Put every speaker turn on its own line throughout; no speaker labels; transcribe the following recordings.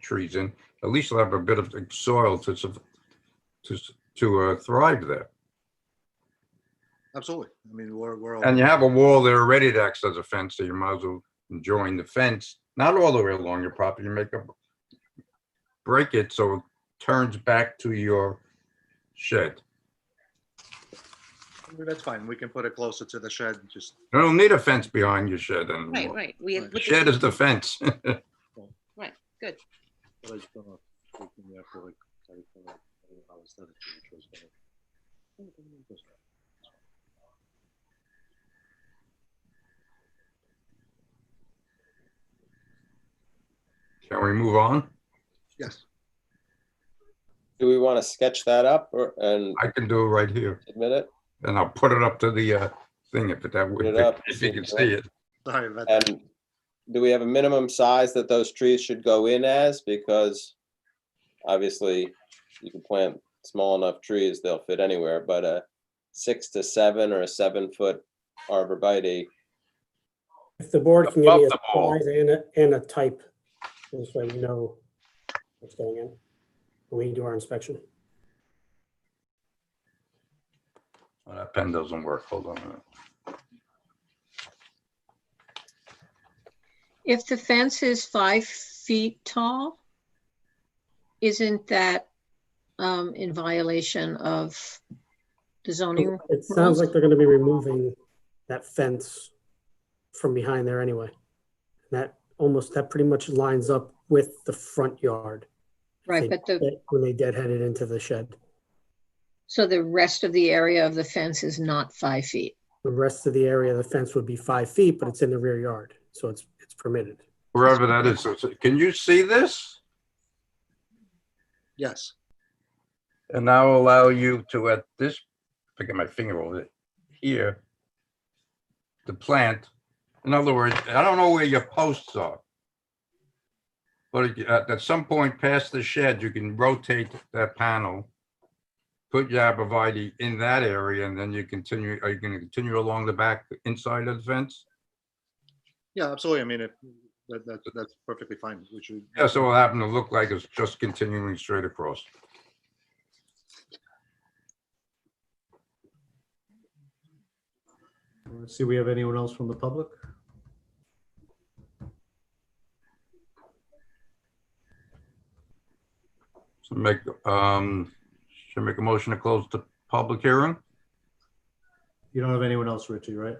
trees in, at least you'll have a bit of soil to, sup- to, s- to uh, thrive there.
Absolutely. I mean, we're, we're, all-
And you have a wall there already that acts as a fence, so you might as well join the fence, not all the way along your property, you make a break it so it turns back to your shed.
that's fine. We can put it closer to the shed, just,
You don't need a fence behind your shed
Right,
anymore.
right. We had
Right.
put
Shed
the
is the fence.
good.
but I just don't know. if we can, yeah, for like, I don't know, I don't know how it's done, which was gonna-
Can we move on?
Yes,
Do we want to sketch that up or, and
I can do it right here,
admit it?
and I'll put it up to the uh, thing if it that
Put it up.
if you can see it.
sorry about that.
And do we have a minimum size that those trees should go in as? Because obviously you can plant small enough trees, they'll fit anywhere, but a six to seven or a seven foot arborvitae.
If the board can give
Above
me a
the ball.
size and a, and a type, this way we know what's going in, when we do our inspection.
Oh, That pen doesn't work, hold on. a minute.
If the fence is five feet tall, isn't that um, in violation of the zoning?
It sounds like they're gonna be removing that fence from behind there anyway. That almost, that pretty much lines up with the front yard.
Right,
They-
but the,
When they deadheaded into the shed.
so the rest of the area of the fence is not five feet.
The rest of the area of the fence would be five feet, but it's in the rear yard, so it's, it's permitted.
Wherever that is, so- so- can you see this?
Yes,
And I'll allow you to at this, I get my finger over it, here. The plant, in other words, I don't know where your posts are. But uh, at, at some point past the shed, you can rotate that panel. Put your abreviate in that area and then you continue, are you gonna continue along the back inside of the fence?
yeah, absolutely. I mean, if, that, that, that's perfectly fine, which we.
Yeah, so it'll happen to look like it's just continuing straight across.
Let's see, we have anyone else from the public?
So make, um, should I make a motion to close the public hearing?
You don't have anyone else, Richie, right?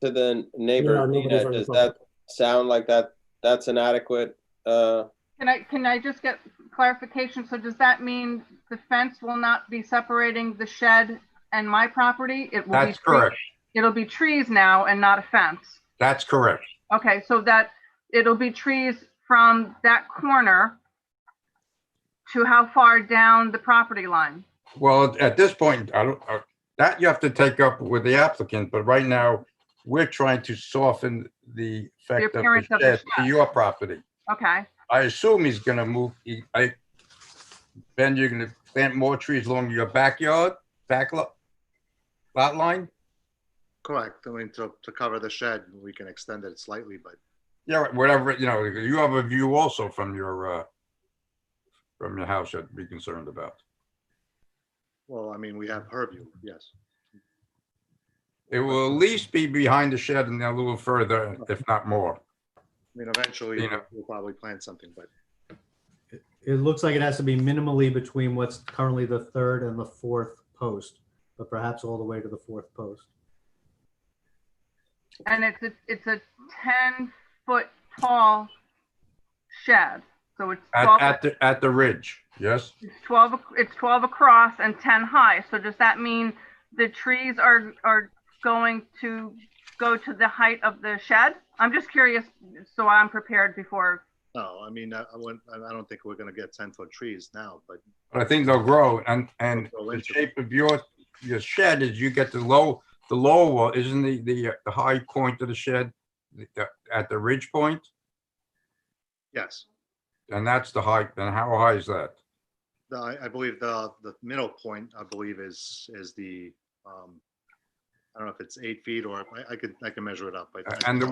To the
No,
neighbor,
nobody's
Nina,
on the
does
public.
that sound like that, that's an adequate, uh,
Can I, can I just get clarification? So does that mean the fence will not be separating the shed and my property? It will be.
That's
tre-
correct.
It'll be trees now and not a fence.
That's correct.
Okay, so that, it'll be trees from that corner to how far down the property line?
Well, at this point, I don't, uh, that you have to take up with the applicant, but right now, we're trying to soften the effect of
appearance
the
of the
shed to
shed.
your property.
Okay,
I assume he's gonna move, he- I, Ben, you're gonna plant more trees along your backyard, back lot, lot line?
Correct. I mean, to, to cover the shed, we can extend it slightly, but
Yeah, whatever, you know, you have a view also from your, uh, from your house you'd be concerned about.
Well, I mean, we have Purview, yes.
It will at least be behind the shed and a little further, if not more.
I mean, eventually,
Dana.
we'll probably plant something, but
It looks like it has to be minimally between what's currently the third and the fourth post, but perhaps all the way to the fourth post.
and it's, a- it's a 10-foot tall shed. So it's
At,
12,
at the, at the ridge, yes?
It's 12, ac- it's 12 across and 10 high. So does that mean the trees are, are going to go to the height of the shed? I'm just curious, so I'm prepared before.
no, I mean, I, I wouldn't, I I don't think we're gonna get ten-foot trees now, but
But I think they'll grow and, and
They'll grow
the
into it.
shape of your, your shed is you get the low, the lower wall, isn't the, the, uh, the high point of the shed the- the- at the ridge point?
yes.
And that's the height, and how high is that?
The, I, I believe the, the middle point, I believe, is, is the, um, I don't know if it's eight feet or, I, I could, I can measure it up. I- I-
And the